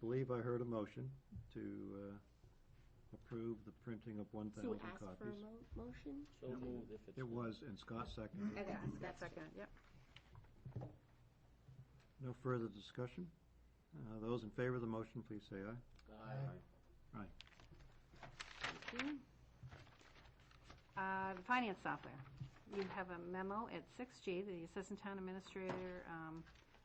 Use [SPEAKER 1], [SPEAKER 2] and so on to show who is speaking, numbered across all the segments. [SPEAKER 1] believe Um, I heard a motion to uh, approve the printing of one
[SPEAKER 2] So
[SPEAKER 1] thousand
[SPEAKER 2] ask for a
[SPEAKER 1] copies.
[SPEAKER 2] mo- motion?
[SPEAKER 3] So
[SPEAKER 1] Yeah.
[SPEAKER 3] moved if it's.
[SPEAKER 1] It was, and Scott seconded. it.
[SPEAKER 2] Okay,
[SPEAKER 4] That's
[SPEAKER 2] that's
[SPEAKER 4] second, yep.
[SPEAKER 1] No further discussion? Uh, Those in favor of the motion, please say aye.
[SPEAKER 3] Aye.
[SPEAKER 4] Thank you. Uh, The finance software. You have a memo at 6G, the Assistant Town Administrator um,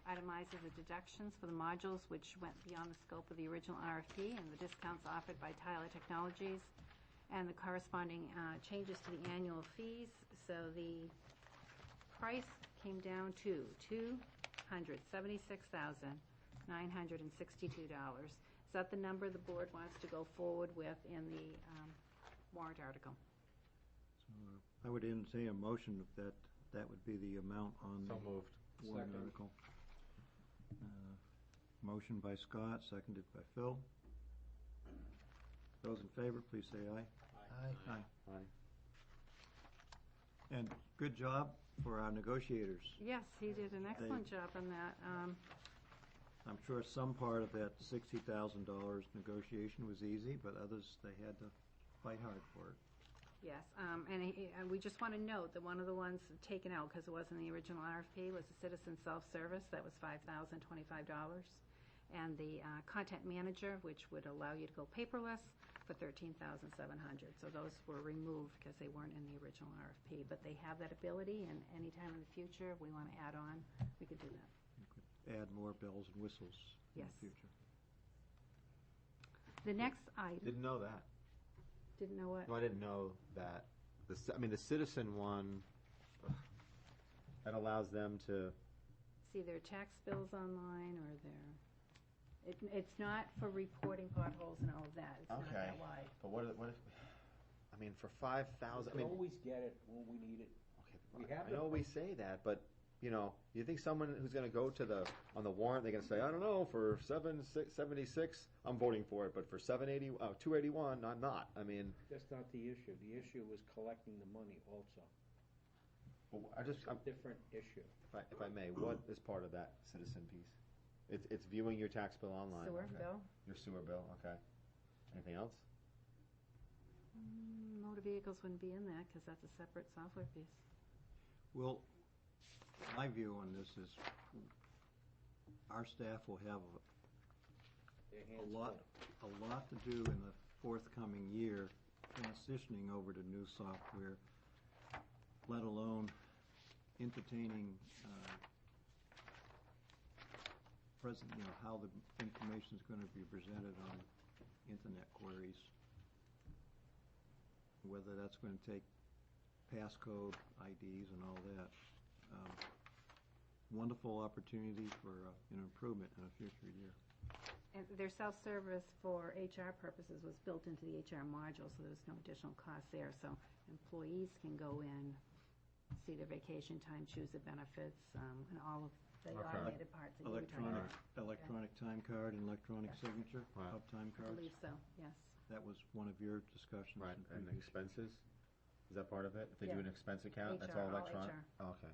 [SPEAKER 4] itemizes the deductions for the modules which went beyond the scope of the original RFP and the discounts offered by Tyler Technologies and the corresponding uh, changes to the annual fees. So the price came down to $276,962. Is that the number the board wants to go forward with in the um, warrant article?
[SPEAKER 1] So uh, I would entertain a motion if that, that would be the amount on the
[SPEAKER 5] So moved.
[SPEAKER 1] warrant
[SPEAKER 3] Second.
[SPEAKER 1] article. Uh, Motion by Scott, seconded by Phil. Those in favor, please say aye. Aye. And good job for our negotiators.
[SPEAKER 4] Yes, he did an excellent job on that. Um,
[SPEAKER 1] I'm sure some part of that sixty thousand dollars negotiation was easy, but others, they had to fight hard for it.
[SPEAKER 4] Yes, um, and he- and we just want to note that one of the ones taken out, because it wasn't the original RFP, was the citizen self-service. That was $5,025. And the uh, content manager, which would allow you to go paperless, for $13,700. So those were removed because they weren't in the original RFP. But they have that ability, and anytime in the future, if we want to add on, we could do that.
[SPEAKER 1] You could Add more bells and whistles in
[SPEAKER 4] Yes.
[SPEAKER 1] the future.
[SPEAKER 4] The next item,
[SPEAKER 5] Didn't know that.
[SPEAKER 4] didn't know what,
[SPEAKER 5] No, I didn't know that. The, ci- I mean, the citizen one, ugh, that allows them to,
[SPEAKER 4] see their tax bills online or their, it, it's not for reporting potholes and all of that. It's not that
[SPEAKER 5] Okay.
[SPEAKER 4] wide.
[SPEAKER 5] but what, what, if- I mean, for five thousand, I
[SPEAKER 3] We
[SPEAKER 5] mean,
[SPEAKER 3] always get it when we need it. We
[SPEAKER 5] okay,
[SPEAKER 3] have
[SPEAKER 5] I know we say that, but, you know, you think someone who's gonna go to the, on the warrant, they're gonna say, I don't know, for seven, six, seventy-six, I'm voting for it, but for seven eighty, uh, two eighty-one, I'm not. I mean,
[SPEAKER 3] That's not the issue. The issue is collecting the money also.
[SPEAKER 5] I just,
[SPEAKER 3] It's
[SPEAKER 1] Um,
[SPEAKER 5] I'm,
[SPEAKER 3] a different issue.
[SPEAKER 5] If I- If I may, what is part of that citizen piece? It's, it's viewing your tax bill online.
[SPEAKER 4] Sewer
[SPEAKER 5] okay.
[SPEAKER 4] bill,
[SPEAKER 5] Your sewer bill, okay. Anything else?
[SPEAKER 4] Mm, motor vehicles wouldn't be in that because that's a separate software piece.
[SPEAKER 1] Well, my view on this is our staff will have
[SPEAKER 3] Their
[SPEAKER 1] a
[SPEAKER 3] hands
[SPEAKER 1] lot,
[SPEAKER 3] full.
[SPEAKER 1] a lot to do in the forthcoming year transitioning over to new software, let alone entertaining, uh, present, you know, how the information is going to be presented on internet queries. Whether that's going to take passcode IDs and all that. Um, Wonderful opportunity for uh, an improvement in a future year.
[SPEAKER 4] And their self-service for HR purposes was built into the HR module, so there's no additional cost there. So employees can go in, see their vacation time, choose the benefits, um, and all of
[SPEAKER 5] Okay.
[SPEAKER 4] the automated parts that you were talking
[SPEAKER 1] Electronic,
[SPEAKER 4] about.
[SPEAKER 1] electronic time card and electronic signature
[SPEAKER 5] Right.
[SPEAKER 1] of time
[SPEAKER 4] I
[SPEAKER 1] cards.
[SPEAKER 4] believe so, yes.
[SPEAKER 1] That was one of your discussions.
[SPEAKER 5] Right,
[SPEAKER 1] in
[SPEAKER 5] and
[SPEAKER 1] previous-
[SPEAKER 5] expenses? Is that part of it? If they do
[SPEAKER 4] Yeah.
[SPEAKER 5] an expense account, that's
[SPEAKER 4] HR,
[SPEAKER 5] all
[SPEAKER 4] all
[SPEAKER 5] electronic?
[SPEAKER 4] HR.
[SPEAKER 5] Oh, Okay.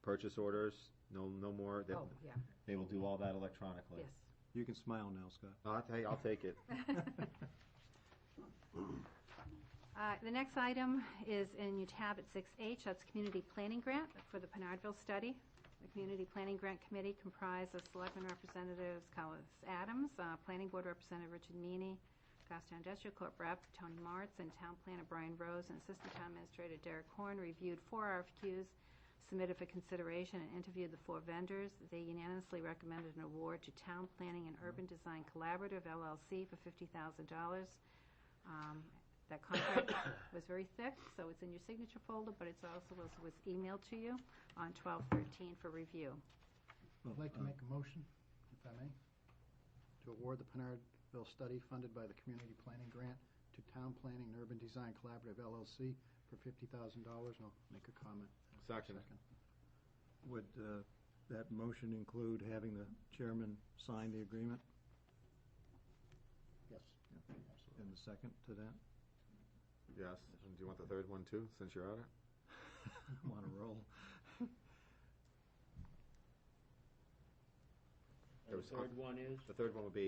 [SPEAKER 5] Purchase orders, no, no more, they,
[SPEAKER 4] Oh, yeah,
[SPEAKER 5] they will do all that electronically?
[SPEAKER 4] yes.
[SPEAKER 1] You can smile now, Scott.
[SPEAKER 5] No, I'll take, I'll take it.
[SPEAKER 4] Uh, The next item is in your tab at 6H, that's Community Planning Grant for the Pinardville Study. The Community Planning Grant Committee comprised of Selectmen Representatives Collis Adams, uh, Planning Board Representative Richard Meany, Goffstown Industrial Corp. Rep. Tony Martz, and Town Planner Brian Rose, and Assistant Town Administrator Derek Horn reviewed four RFQs submitted for consideration and interviewed the four vendors. They unanimously recommended an award to Town Planning and Urban Design Collaborative LLC for $50,000. Um, That contract was very thick, so it's in your signature folder, but it's also was, was emailed to you on 12/13 for review.
[SPEAKER 6] I'd
[SPEAKER 1] uh,
[SPEAKER 6] like to make a motion, if I may, to award the Pinardville study funded by the Community Planning Grant to Town Planning and Urban Design Collaborative LLC for $50,000, and I'll make a comment.
[SPEAKER 5] Second.
[SPEAKER 1] Would uh, that motion include having the chairman sign the agreement
[SPEAKER 6] Yes.
[SPEAKER 1] and the second to that?
[SPEAKER 5] Yes. And do you want the third one too, since you're on it?
[SPEAKER 1] I'm on a roll.
[SPEAKER 3] And
[SPEAKER 5] There
[SPEAKER 3] the
[SPEAKER 5] was-
[SPEAKER 3] third one is?
[SPEAKER 5] The third one would be